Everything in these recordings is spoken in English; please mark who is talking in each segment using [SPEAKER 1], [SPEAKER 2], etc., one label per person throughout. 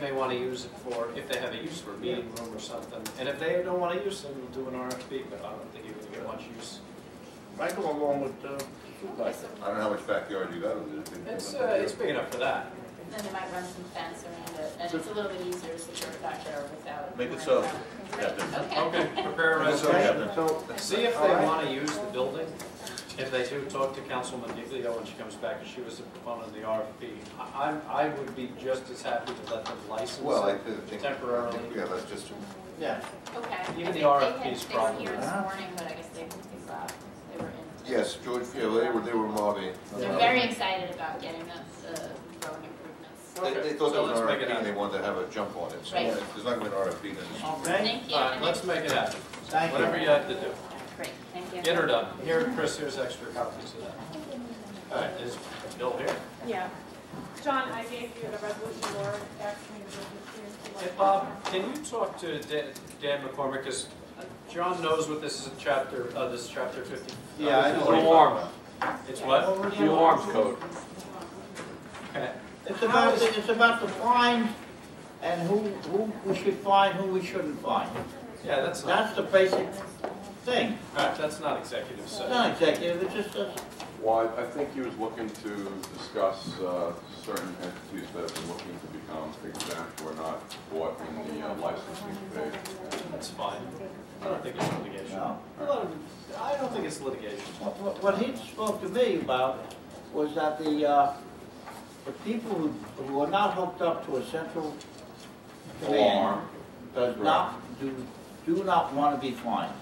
[SPEAKER 1] they want to use it for, if they have a use for a meeting room or something. And if they don't want to use them, we'll do an RFP, but I don't think you're going to get much use.
[SPEAKER 2] I go along with, uh, like,
[SPEAKER 3] I don't know how much backyard you got over there.
[SPEAKER 1] It's, uh, it's big enough for that.
[SPEAKER 4] Then they might run some fence around it, and it's a little bit easier to secure a backyard without.
[SPEAKER 3] Make
[SPEAKER 4] worrying
[SPEAKER 3] it so,
[SPEAKER 4] about-
[SPEAKER 3] Captain.
[SPEAKER 4] Okay.
[SPEAKER 1] Okay, prepare a
[SPEAKER 3] Make it so,
[SPEAKER 1] resolution.
[SPEAKER 3] Captain.
[SPEAKER 2] so,
[SPEAKER 1] See if they want to use the building. If they do, talk to Councilman Diglio when she comes back, and she was the proponent of the RFP. I, I'm- I would be just as happy to let them license
[SPEAKER 3] Well, I
[SPEAKER 1] it.
[SPEAKER 3] think, I
[SPEAKER 1] Temporarily.
[SPEAKER 3] think, yeah, that's just,
[SPEAKER 1] Yeah,
[SPEAKER 4] Okay. I
[SPEAKER 1] Even the
[SPEAKER 4] think they
[SPEAKER 1] RFP
[SPEAKER 4] had-
[SPEAKER 1] is
[SPEAKER 4] They were here
[SPEAKER 2] problematic.
[SPEAKER 4] this morning, but I guess they they left, they were in.
[SPEAKER 3] yes, George, yeah, they were, they were mobbing.
[SPEAKER 4] They're very excited about getting the, the road improvements.
[SPEAKER 3] They, they thought
[SPEAKER 1] So
[SPEAKER 3] there was
[SPEAKER 1] let's
[SPEAKER 3] an
[SPEAKER 1] make it
[SPEAKER 3] RFP and they
[SPEAKER 1] happen.
[SPEAKER 3] wanted to have a jump on it, so
[SPEAKER 4] Right.
[SPEAKER 3] there's not gonna be an RFP then.
[SPEAKER 2] okay,
[SPEAKER 4] Thank you.
[SPEAKER 1] all right, let's make it happen.
[SPEAKER 2] thank you.
[SPEAKER 1] Whatever you have to do.
[SPEAKER 4] Great, thank you.
[SPEAKER 1] Get her done. Here, Chris, here's extra copies of that. All right, is Bill here?
[SPEAKER 5] Yeah. John, I gave you the resolution Laura asked me to give
[SPEAKER 1] Hey,
[SPEAKER 5] it to you.
[SPEAKER 1] Bob, can you talk to Dan- Dan McCormick, because John knows what this is, in chapter, uh, this is chapter 50.
[SPEAKER 6] Yeah, I know what you're talking
[SPEAKER 3] Alarm.
[SPEAKER 1] It's what?
[SPEAKER 6] The alarm code.
[SPEAKER 1] Okay.
[SPEAKER 2] It's about, the- it's about the fines and who, who we should fine, who we shouldn't fine.
[SPEAKER 1] Yeah, that's not,
[SPEAKER 2] That's the basic thing.
[SPEAKER 1] all right, that's not executive
[SPEAKER 2] It's
[SPEAKER 1] session.
[SPEAKER 2] not executive, it's just uh, a
[SPEAKER 6] Well, I I think he was looking to discuss uh, certain entities that have been looking to become exempt or not bought in the uh, licensing phase.
[SPEAKER 1] That's fine. I don't think it's litigation.
[SPEAKER 2] No.
[SPEAKER 1] Well, I don't think it's litigation.
[SPEAKER 2] What- What what he spoke to me about was that the, uh, the people who, who are not hooked up to a central command
[SPEAKER 6] Alarm.
[SPEAKER 2] does not, do, do not want to be fined.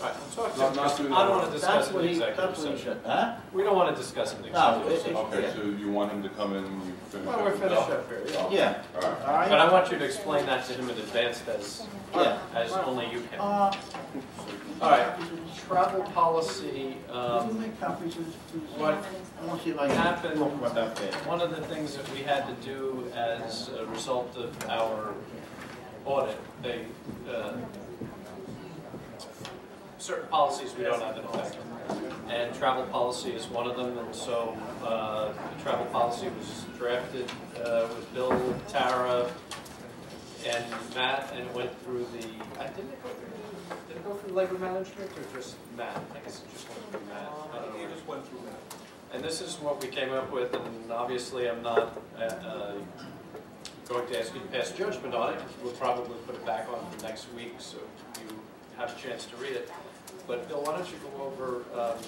[SPEAKER 1] All right, talk
[SPEAKER 6] No,
[SPEAKER 1] to
[SPEAKER 6] not
[SPEAKER 1] Chris. I
[SPEAKER 6] through
[SPEAKER 1] don't
[SPEAKER 6] that.
[SPEAKER 1] want to discuss
[SPEAKER 2] That's
[SPEAKER 1] an
[SPEAKER 2] what he,
[SPEAKER 1] executive
[SPEAKER 2] that's what he
[SPEAKER 1] session.
[SPEAKER 2] said, huh?
[SPEAKER 1] We don't want to discuss an
[SPEAKER 2] No,
[SPEAKER 1] executive
[SPEAKER 2] it-
[SPEAKER 1] session.
[SPEAKER 6] Okay,
[SPEAKER 2] it's,
[SPEAKER 6] so you want him to come in when you finish
[SPEAKER 1] Well, we're
[SPEAKER 6] up with
[SPEAKER 1] finished
[SPEAKER 6] Bill?
[SPEAKER 1] up here. yeah.
[SPEAKER 2] yeah, yeah,
[SPEAKER 6] All right.
[SPEAKER 2] all
[SPEAKER 1] But
[SPEAKER 2] right,
[SPEAKER 1] I want you to explain that to him in advance as,
[SPEAKER 2] yeah.
[SPEAKER 1] as only you can. All
[SPEAKER 2] Uh,
[SPEAKER 1] right, travel policy,
[SPEAKER 2] Did you
[SPEAKER 1] um,
[SPEAKER 2] make copies of this?
[SPEAKER 1] what
[SPEAKER 2] I want to see if I can
[SPEAKER 1] happened,
[SPEAKER 2] talk about that bit.
[SPEAKER 1] one of the things that we had to do as a result of our audit, they, uh, certain policies we don't have in effect. And travel policy is one of them, and so, uh, the travel policy was drafted, uh, with Bill, Tara, and Matt, and it went through the, I didn't it go through, did it go through labor management or just Matt? I guess it just went through Matt. I don't know. And this is what we came up with, and obviously I'm not uh, uh, going to ask you to pass judgment on it. We'll probably put it back on for next week, so you have a chance to read it. But Bill, why don't you go over um,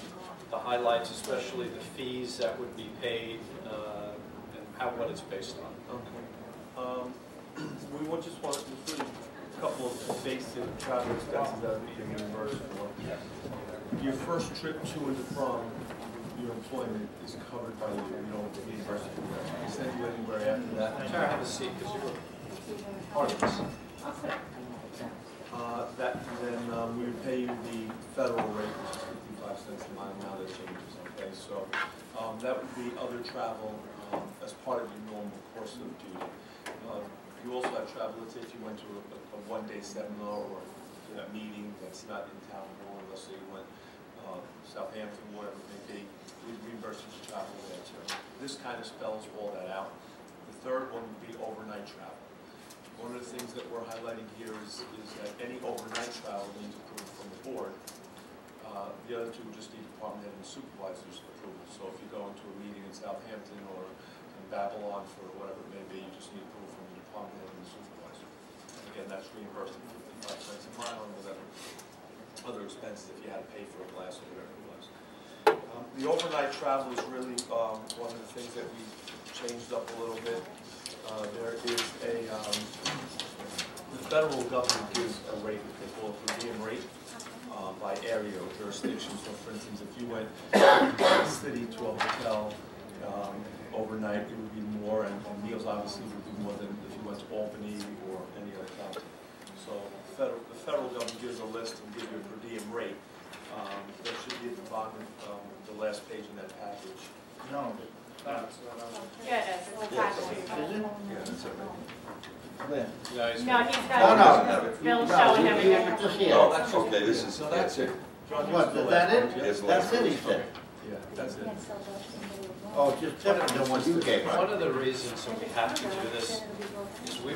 [SPEAKER 1] the highlights, especially the fees that would be paid uh, and how, what it's based on?
[SPEAKER 7] Okay. Um, We would just want, there's really a couple of basic travel expenses that would be reimbursed for. Your first trip to and from your employment is covered by you, you don't reimburse it. You send you anywhere after that.
[SPEAKER 1] Tara, have a seat, because you were part of this.
[SPEAKER 7] Uh, That, then um, we would pay you the federal rate, which is fifty-five cents a mile, now that changes, okay? So um, that would be other travel um, as part of your normal course of duty. Uh, You also have travel, let's say if you went to a a one-day seminar or a meeting that's not in town, or let's say you went uh, Southampton, whatever it may be, we'd reimburse you for travel there too. This kind of spells all that out. The third one would be overnight travel. One of the things that we're highlighting here is, is that any overnight travel needs approval from the board. Uh, The other two just need department head and supervisor's approval. So if you go into a meeting in Southampton or in Babylon for whatever it may be, you just need approval from the department head and the supervisor. And Again, that's reimbursed at fifty-five cents a mile and whatever other expenses if you had to pay for a glass or whatever it was. Um, The overnight travel is really um, one of the things that we changed up a little bit. Uh, There is a, um, the federal government gives a rate, they call it per diem rate, uh, by area or jurisdiction. So for instance, if you went from the city to a hotel um, overnight, it would be more, and and meals obviously would be more than if you went to Albany or any other county. So federal, the federal government gives a list and gives you a per diem rate. Um, That should be at the bottom, um, the last page in that package.
[SPEAKER 2] No,
[SPEAKER 5] Yeah, it is. We'll pass it to you.
[SPEAKER 2] is it?
[SPEAKER 3] Yeah, that's it.
[SPEAKER 2] Where?
[SPEAKER 1] No, he's-
[SPEAKER 5] No, he's
[SPEAKER 2] No,
[SPEAKER 5] got
[SPEAKER 2] no.
[SPEAKER 3] Have it.
[SPEAKER 5] it. Bill showing
[SPEAKER 2] No, you- you-
[SPEAKER 5] everything.
[SPEAKER 2] Just here.
[SPEAKER 3] Oh, okay, this is, that's it.
[SPEAKER 7] John, you
[SPEAKER 2] What,
[SPEAKER 7] still
[SPEAKER 2] is that
[SPEAKER 7] have-
[SPEAKER 2] it?
[SPEAKER 3] Yes,
[SPEAKER 2] That's it, he said.
[SPEAKER 7] Yeah, that's it.
[SPEAKER 2] Oh, just different than what you gave us.
[SPEAKER 1] One of the reasons that we have to do this is we